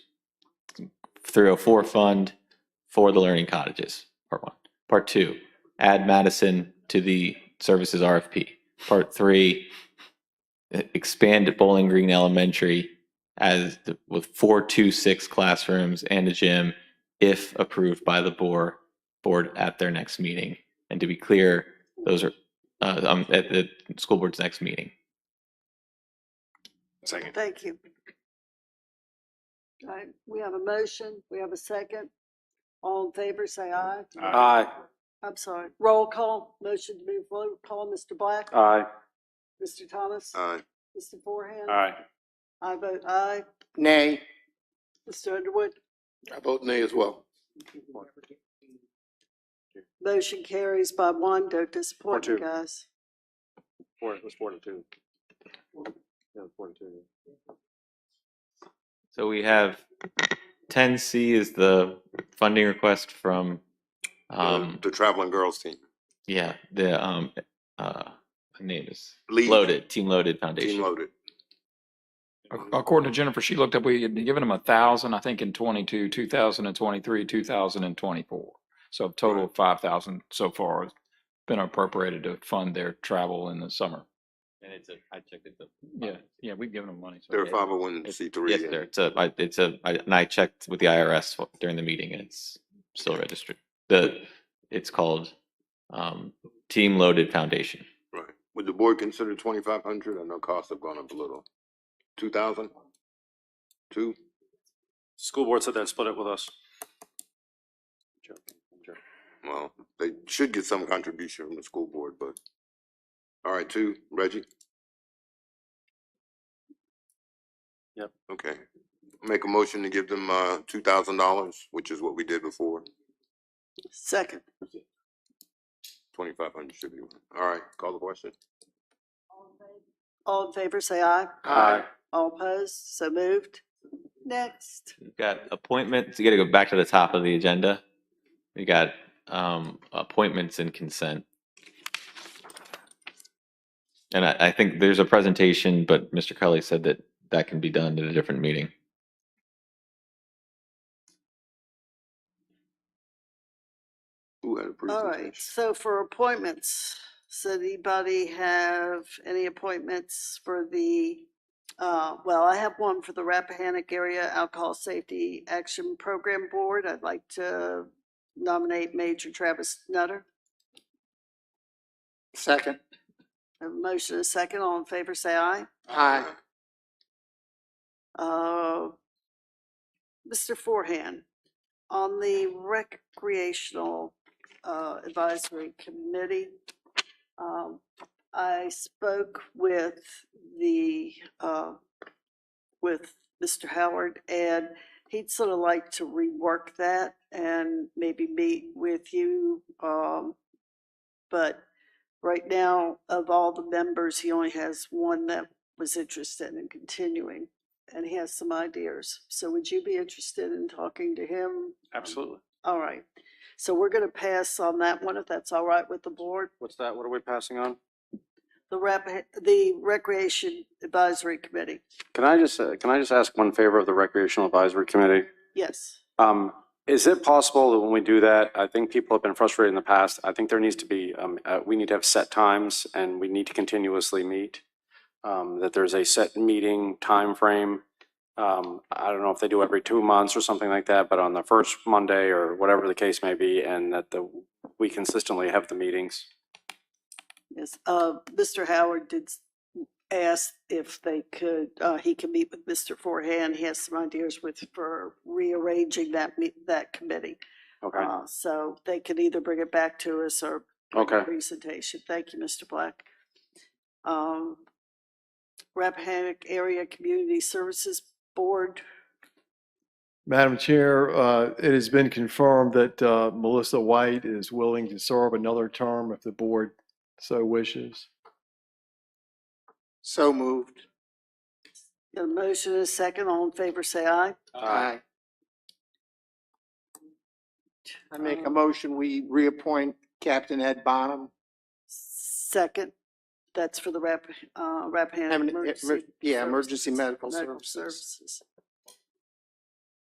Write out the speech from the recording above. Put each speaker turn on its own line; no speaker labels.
304 fund for the learning cottages, part one. Part two, add Madison to the services RFP. Part three, e- expand Bowling Green Elementary as the, with four two six classrooms and a gym if approved by the board board at their next meeting. And to be clear, those are uh, um, at the school board's next meeting.
Second.
Thank you. All right, we have a motion, we have a second. All in favor, say aye.
Aye.
I'm sorry, roll call, motion to move roll call, Mr. Black,
Aye.
Mr. Thomas,
Aye.
Mr. Forehand.
Aye.
I vote aye.
Nay.
Mr. Underwood,
I vote nay as well.
motion carries by one, don't disappoint
Four,
you
two.
guys.
Four, it was four to two. Yeah, four to two.
So we have ten C is the funding request from um,
The traveling girls team.
Yeah, the um uh the name is
Lead.
Loaded, Team Loaded Foundation.
Team loaded.
Ac- According to Jennifer, she looked up, we had given them a thousand, I think in twenty-two, two thousand and twenty-three, two thousand and twenty-four. So a total of five thousand so far has been appropriated to fund their travel in the summer.
And it's a I checked it.
Yeah, yeah, we've given them money. so-
They're five oh one C three.
Yes, sir. It's a I, it's a I, and I checked with the IRS wh- during the meeting and it's still registered. The it's called um Team Loaded Foundation.
Right. Would the board consider twenty-five hundred? I know costs have gone up a little. Two thousand? Two?
School board said they'd split it with us.
Well, they should get some contribution from the school board, but. All right, two, Reggie?
Yep.
Okay. Make a motion to give them, uh, two thousand dollars, which is what we did before.
Second,
Twenty-five hundred should be. All right, call the question.
all in favor, say aye.
Aye.
All opposed, so moved. Next,
We've got appointments. You got to go back to the top of the agenda. We got um appointments and consent. And I, I think there's a presentation, but Mr. Kelly said that that can be done at a different meeting.
Who had a
all right,
presentation?
so for appointments, so anybody have any appointments for the, uh, well, I have one for the Rappahannock Area Alcohol Safety Action Program Board. I'd like to nominate Major Travis Nutter.
Second.
A motion and a second, all in favor, say aye.
Aye.
Uh, Mr. Forehand, on the recreational uh, advisory committee, um, I spoke with the, uh, with Mr. Howard, and he'd sort of like to rework that and maybe meet with you. um, But right now, of all the members, he only has one that was interested in continuing and he has some ideas. So would you be interested in talking to him?
Absolutely.
All right. So we're going to pass on that one if that's all right with the board.
What's that? What are we passing on?
The rep, the Recreation Advisory Committee.
Can I just, uh, can I just ask one favor of the recreational advisory committee?
Yes.
Um, is it possible that when we do that, I think people have been frustrated in the past. I think there needs to be, um, uh, we need to have set times and we need to continuously meet. Um, that there's a set meeting time frame. Um, I don't know if they do every two months or something like that, but on the first Monday or whatever the case may be, and that the, we consistently have the meetings.
Yes. Uh, Mr. Howard did s- ask if they could, uh, he can meet with Mr. Forehand. He has some ideas with, for rearranging that, me- that committee.
Okay,
Uh, so they can either bring it back to us or
okay.
presentation. Thank you, Mr. Black. Um, Rappahannock Area Community Services Board,
Madam Chair, uh, it has been confirmed that uh, Melissa White is willing to serve another term if the board so wishes.
So moved.
a motion and a second. All in favor, say aye.
Aye. I make a
Um,
motion, we reappoint Captain Ed Bonham.
Second, that's for the Rap, uh, Rappahannock
Emer- emer-
Emergency.
yeah, emergency medical services.
services.